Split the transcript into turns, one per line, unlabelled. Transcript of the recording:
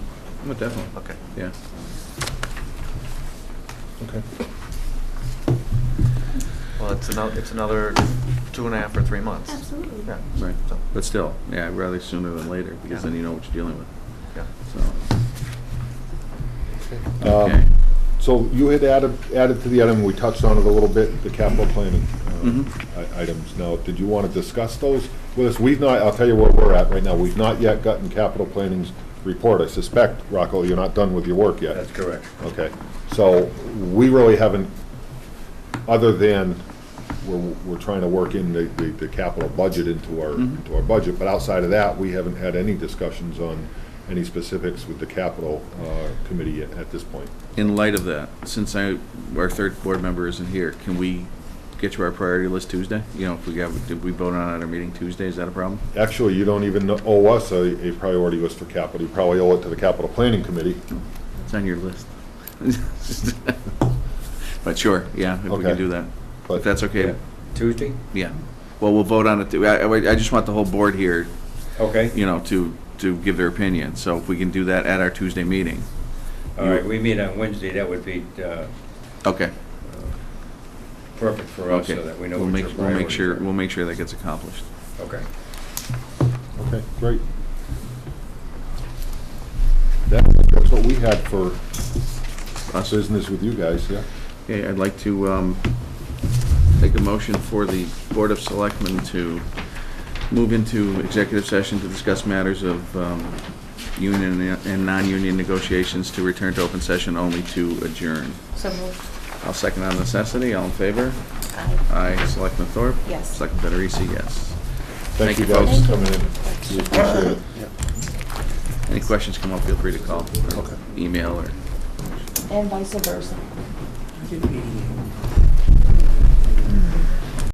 Oh, definitely,
Okay.
yeah.
Okay.
Well, it's another, it's another two and a half or three months.
Absolutely.
Yeah.
Right,
So,
but still, yeah, I'd rather sooner than later, because then you know what you're dealing with,
yeah.
so. Okay.
Um, So you had added, added to the item, we touched on it a little bit, the capital planning um, i- items. Now, did you want to discuss those with us? We've not, I'll tell you where we're at right now. We've not yet gotten capital planning's report. I suspect, Rocco, you're not done with your work yet.
That's correct.
Okay, so we really haven't, other than we're, we're trying to work in the, the the capital budget into our,
Mm-hmm.
into our budget, but outside of that, we haven't had any discussions on any specifics with the capital uh, committee yet at this point.
in light of that, since I, our third board member isn't here, can we get to our priority list Tuesday? You know, if we got, did we vote on it at our meeting Tuesday, is that a problem?
Actually, you don't even owe us a, a priority list for capital, you probably owe it to the capital planning committee.
It's on your list. But sure, yeah, if we
Okay.
can do that. If
But-
that's okay,
Tuesday?
yeah. Well, we'll vote on it, th- I, I I just want the whole board here,
Okay.
you know, to, to give their opinion. So if we can do that at our Tuesday meeting,
All right, we meet on Wednesday, that would be uh,
okay,
perfect for us,
okay.
so that we know
We'll
what
make-
your
We'll make
priorities
sure,
are.
we'll make sure that gets accomplished.
Okay.
Okay, great. That's, that's what we had for
Us-
business with you guys, yeah?
Okay, I'd like to um, take a motion for the Board of Selectmen to move into executive session to discuss matters of um, union and non-union negotiations to return to open session only to adjourn.
So moved.
I'll second on necessity. All in favor?
Aye.
Aye. Selectman Thorpe?
Yes.
Selectman Federici, yes. Thank
Thank you
you,
guys
folks.
for coming in. We appreciate it.
Any questions come up, feel free to call, or
Okay.
email, or...
And vice versa.